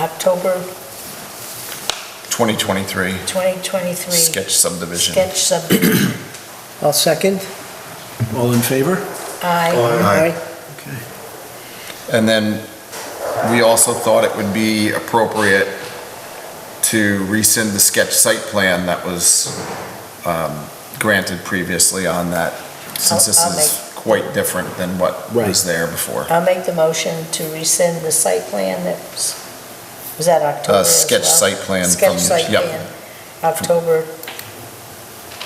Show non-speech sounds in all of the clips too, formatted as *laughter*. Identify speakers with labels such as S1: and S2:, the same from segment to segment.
S1: October
S2: 2023
S1: 2023.
S2: sketch subdivision.
S1: Sketch subdivision.
S3: I'll second.
S4: All in favor?
S1: Aye.
S2: Aye.
S3: Aye.
S4: Okay.
S2: And then we also thought it would be appropriate to rescind the sketch site plan that was um, granted previously on that, since this
S1: I'll- I'll
S2: is quite different than what was
S4: Right.
S2: there before.
S1: I'll make the motion to rescind the site plan that was, was that October
S2: Uh,
S1: as
S2: sketch
S1: well?
S2: site plan from-
S1: Sketch site
S2: yep.
S1: plan, October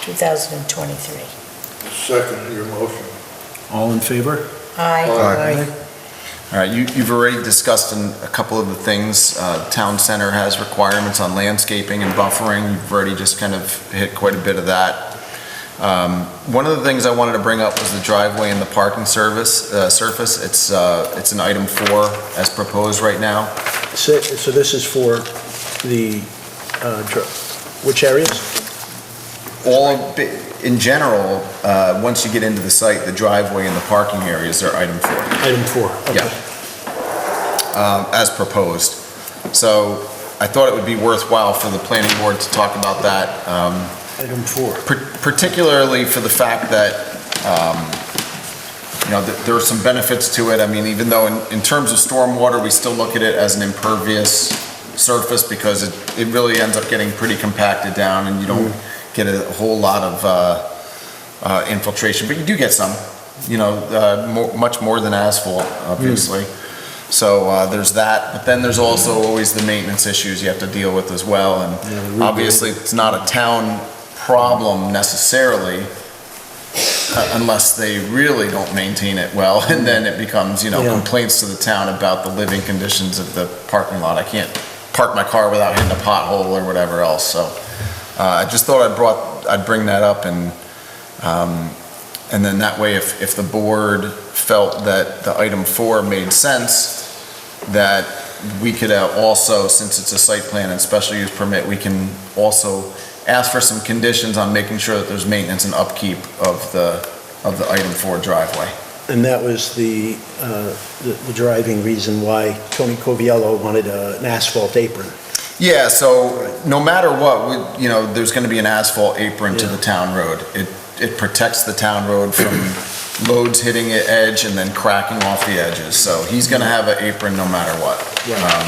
S1: 2023.
S5: Second your motion.
S4: All in favor?
S1: Aye.
S2: All right, you, you've already discussed in a couple of the things, uh, town center has requirements on landscaping and buffering, you've already just kind of hit quite a bit of that. Um, one of the things I wanted to bring up was the driveway and the parking service, uh, surface, it's, uh, it's an item four as proposed right now.
S4: So so this is for the, uh, dr- which areas?
S2: All, bi- in general, uh, once you get into the site, the driveway and the parking areas are item four.
S4: Item four. okay.
S2: Yeah. um, as proposed. So I thought it would be worthwhile for the planning board to talk about that, um,
S4: Item four.
S2: par- particularly for the fact that, um, you know, th- there are some benefits to it. I mean, even though in, in terms of stormwater, we still look at it as an impervious surface because it, it really ends up getting pretty compacted down and you don't
S4: Mm-hmm.
S2: get a whole lot of uh, uh, infiltration, but you do get some, you know, uh, mo- much more than asphalt, obviously.
S4: Mm.
S2: So uh, there's that, but then there's also always the maintenance issues you have to deal with as well.
S4: Yeah, the
S2: And
S4: root
S2: obviously, it's not a town problem necessarily, uh, unless they really don't maintain it well, *laughs* and then it becomes, you know,
S4: Yeah.
S2: complaints to the town about the living conditions of the parking lot. I can't park my car without hitting a pothole or whatever else, so. uh, I just thought I'd brought, I'd bring that up and, um, and then that way, if, if the board felt that the item four made sense, that we could uh, also, since it's a site plan and special use permit, we can also ask for some conditions on making sure that there's maintenance and upkeep of the, of the item four driveway.
S4: And that was the, uh, the the driving reason why Tony Coviello wanted uh, an asphalt apron.
S2: Yeah, so no matter what, we, you know, there's gonna be an asphalt apron to the town road. It, it protects the town road from loads hitting the edge and then cracking off the edges. So he's gonna have an apron no matter what. Um,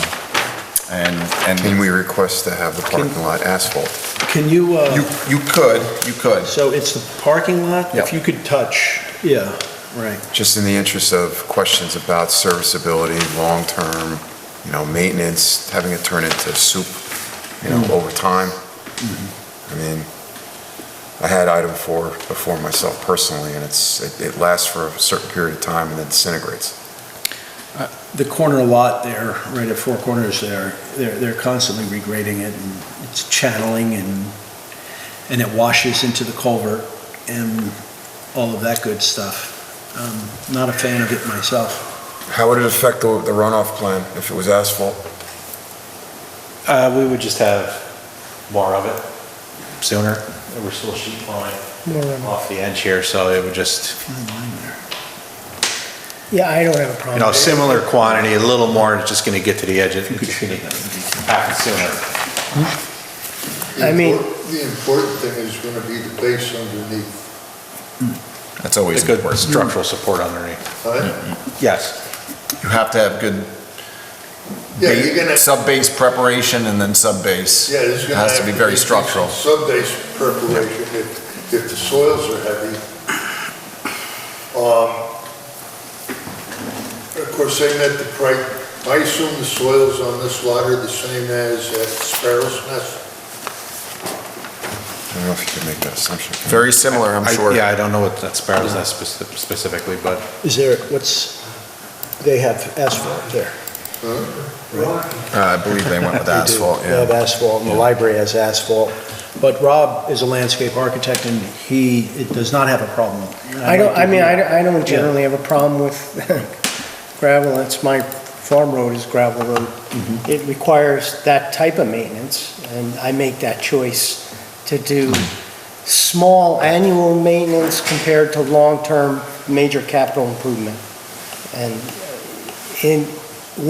S2: And,
S6: Can
S2: and
S6: we request to have the parking lot asphalt?
S4: Can you, uh,
S2: you, you could, you could.
S4: so it's the parking lot?
S2: Yep.
S4: If you could touch, yeah, right.
S6: Just in the interest of questions about serviceability, long-term, you know, maintenance, having it turn into soup, you know, over time. I mean, I had item four before myself personally, and it's, it- it lasts for a certain period of time and then disintegrates.
S4: The corner lot there, right at Four Corners there, they're, they're constantly regrading it and it's channeling and, and it washes into the culvert and all of that good stuff. Um, Not a fan of it myself.
S6: How would it affect the the runoff plan if it was asphalt?
S7: Uh, we would just have more of it sooner. We're still sheet flowing off the edge here, so it would just,
S4: Fine line there.
S3: Yeah, I don't have a problem.
S7: you know,
S3: with it.
S7: similar quantity, a little more, it's just gonna get to the edge. It's
S4: could
S7: just gonna
S4: share that, that'd be
S7: happen sooner.
S3: I mean-
S5: The important thing is going to be the base underneath.
S2: That's always
S7: A good
S2: important.
S7: structural support underneath.
S5: huh?
S2: Mm-hmm.
S7: Yes,
S2: You have to have good
S5: Yeah, you're going to,
S2: sub-base preparation and then sub-base.
S5: yeah, there's
S2: It
S5: going to.
S2: has to be very structural.
S5: Sub-base preparation if, if the soils are heavy. Um, Of course, they met the price, I assume the soils on this lot are the same as at Sparrow's Nest.
S6: I don't know if you can make that assumption.
S2: Very similar, I'm
S7: I-
S2: sure.
S7: yeah, I don't know what that spare is that speci- specifically, but
S4: Is there, what's, they have asphalt there.
S2: Uh, I believe they went with
S4: *laughs* They do.
S2: asphalt,
S4: They have
S2: yeah.
S4: asphalt, and the library has asphalt. But Rob is a landscape architect, and he it does not have a problem.
S3: I don't, I mean, I don't- I don't
S4: Yeah.
S3: generally have a problem with *laughs* gravel, it's my farm road is gravel road. It requires that type of maintenance, and I make that choice to do small annual maintenance compared to long-term major capital improvement. And in,